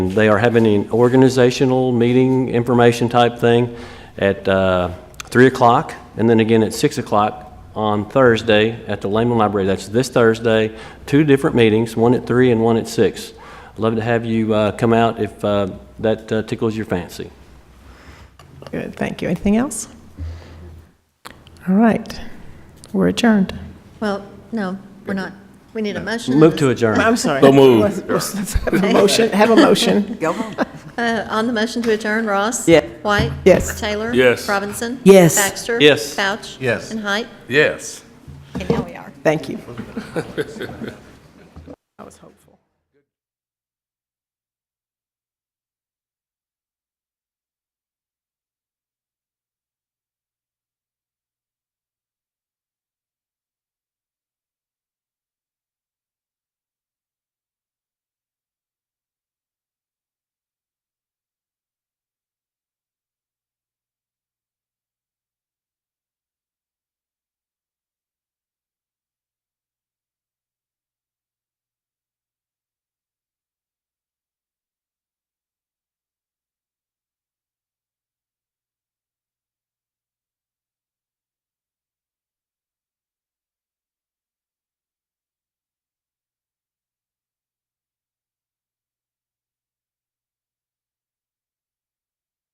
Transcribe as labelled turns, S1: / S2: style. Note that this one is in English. S1: They are having an organizational meeting, information type thing at uh, 3 o'clock, and then again at 6 o'clock on Thursday at the Lehman Library. That's this Thursday, two different meetings, one at 3 and one at 6. I'd Love to have you uh, come out if uh, that uh, tickles your fancy.
S2: Good, thank you. Anything else? All right, we're adjourned.
S3: Well, no, we're not. We need a motion.
S1: Move to adjourn.
S2: I'm sorry.
S4: So moved.
S2: Have a motion, have a motion.
S3: Uh, On the motion to adjourn, Ross?
S5: Yeah.
S3: White?
S2: Yes.
S3: Taylor?
S4: Yes.
S3: Robinson?
S5: Yes.
S3: Baxter?
S1: Yes.
S3: Couch?
S6: Yes.
S3: And Height?
S4: Yes.
S3: And now we are.
S2: Thank you. I was hopeful.